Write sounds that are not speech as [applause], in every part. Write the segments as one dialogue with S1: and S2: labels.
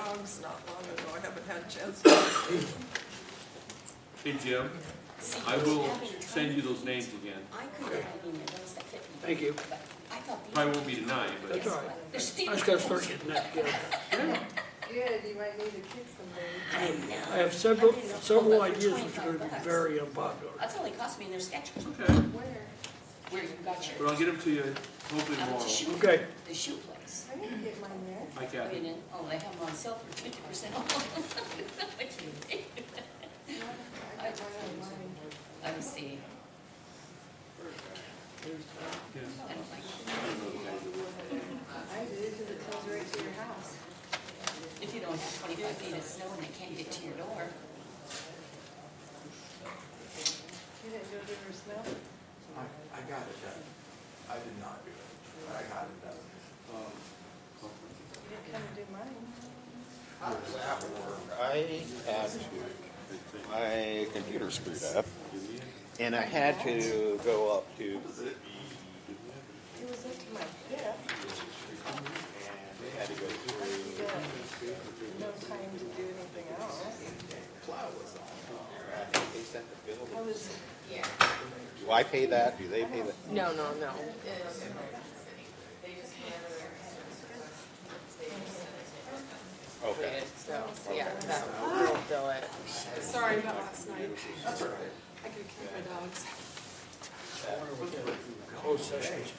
S1: Tom's not long ago, I haven't had a chance. to
S2: Hey, Jim,
S3: See,
S2: I will
S3: having trouble.
S2: send you those names again.
S3: I couldn't find any of those that fit me.
S4: Thank you.
S3: But I thought these.
S2: Probably won't be tonight, but
S4: That's all right.
S3: They're
S4: I
S3: stealing.
S4: just gotta start getting that together.
S5: Good, you might need a kid someday.
S3: I know.
S4: I have several, several ideas which are gonna be very unpopular.
S3: That's all they cost me in their sketches,
S2: okay,
S5: Where?
S3: where you got
S2: but
S3: your,
S2: I'll get them to you hopefully
S3: out
S2: tomorrow.
S3: the shoe,
S4: Okay,
S3: the shoe place.
S5: I didn't get mine there.
S2: Hi,
S3: I
S2: Kathy.
S3: mean, and- oh, they have them on sale for fifty percent [laughs] off.
S5: I got mine on mine.
S3: Let me see.
S2: Yeah.
S3: I don't like-
S5: I did, because it comes right to your house.
S3: If you don't have twenty-five feet of snow and they can't get to your door,
S5: You didn't go through your snow?
S6: I, I got it done. I did not do it, but I got it done.
S5: You didn't come and do mine.
S6: I was at work.
S7: I had, my computer screwed up, and I had to go up to the,
S5: It was up to my hip.
S7: and they had to go through,
S5: You got no time to do anything else.
S7: plow was on. I think they sent the bill.
S5: I was,
S7: Do I pay that? Do they pay that?
S8: No, no, no.
S7: Okay.
S8: So, yeah, that will do it.
S9: Sorry about last night. I could have kept my dogs.
S4: closed sessions.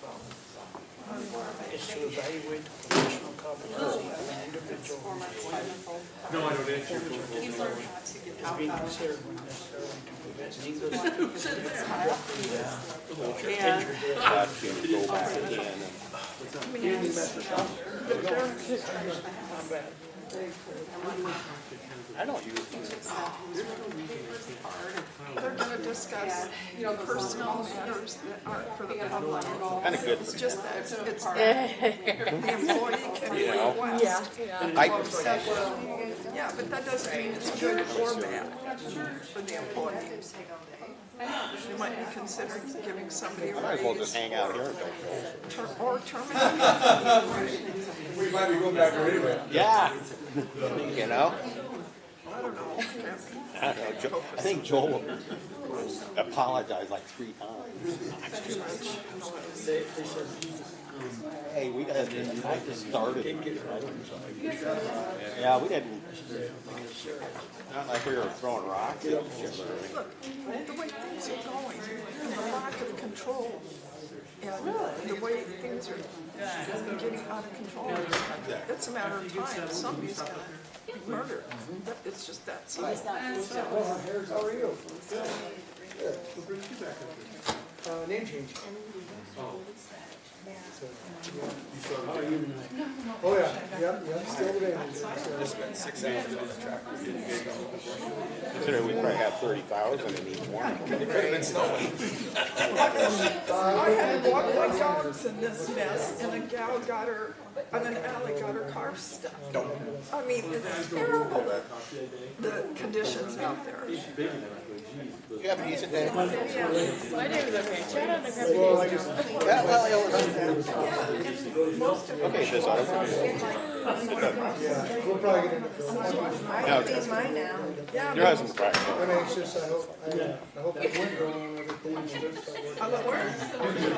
S4: It's to evaluate the professional competency of an individual
S9: For my wonderful.
S2: No, I don't answer your phone.
S9: He's learned how to get out.
S4: being considered when necessarily to prevent neither
S9: And
S7: Got to go back again and
S9: they're gonna discuss, you know, personal matters that aren't for the public.
S7: Kinda good.
S9: It's just that it's, it's the employee can request.
S7: I can,
S9: Yeah, but that doesn't mean it's good or bad for the employee. You might be considering giving somebody a
S7: might as well
S9: raise
S7: just hang out here and don't go.
S9: ter- or terminating.
S6: We might be going back there anyway.
S7: Yeah. You know? I don't know, Jo- I think Joel apologized like three times.
S4: they, they said,
S7: Hey, we got, I just started. Yeah, we didn't, not like we were throwing rocks at each other.
S9: Look, the way things are going, and the lack of control, and the way things are getting out of control, in this country, it's a matter of time, somebody's gonna be murdered. That- It's just that simple.
S3: it's not.
S4: how are you? Uh, name change. Oh,
S10: Oh, yeah, yep, yep, still there.
S7: Considering we probably have thirty thousand in each one.
S9: I had walked my dogs in this mess, and a gal got her, and an alley got her car stuck. I mean, it's terrible, that- the conditions out there.
S7: You have a decent day?
S8: My day was okay. Shout out to
S10: Well, I just,
S7: Yeah, well, it was. Okay, this auto.
S10: yeah, we'll probably get into it.
S5: I can do mine now.
S7: Your husband's crying.
S10: I'm anxious, I hope, I, I hope it went wrong and everything, and just, I want-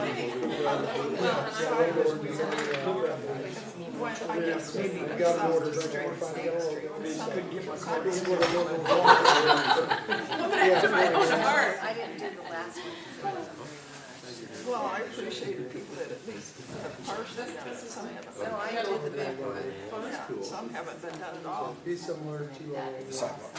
S9: I guess maybe
S10: I got orders, I don't wanna find out.
S3: [laughs]
S5: I didn't do the last one.
S9: Well, I appreciated people that at least have partially done it. Some haven't done
S5: No, I did the big one.
S9: it. Some haven't been done at all.
S10: Be similar to, uh,